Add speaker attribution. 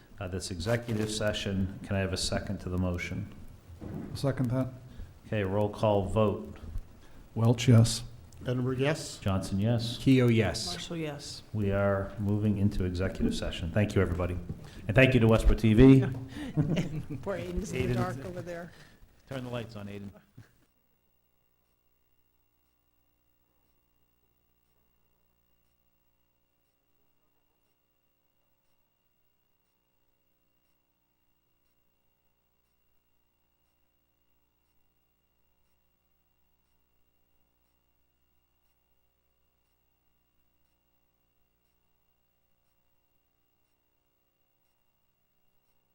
Speaker 1: uh, this executive session. Can I have a second to the motion?
Speaker 2: Second that.
Speaker 1: Okay, roll call vote.
Speaker 2: Welch, yes.
Speaker 3: Edinburgh, yes?
Speaker 1: Johnson, yes.
Speaker 4: Keo, yes.
Speaker 5: Marshall, yes.
Speaker 1: We are moving into executive session. Thank you, everybody. And thank you to Westbrook TV.
Speaker 5: Poor Aiden's in the
Speaker 1: Aiden's-
Speaker 5: dark over there.
Speaker 1: Turn the lights on, Aiden.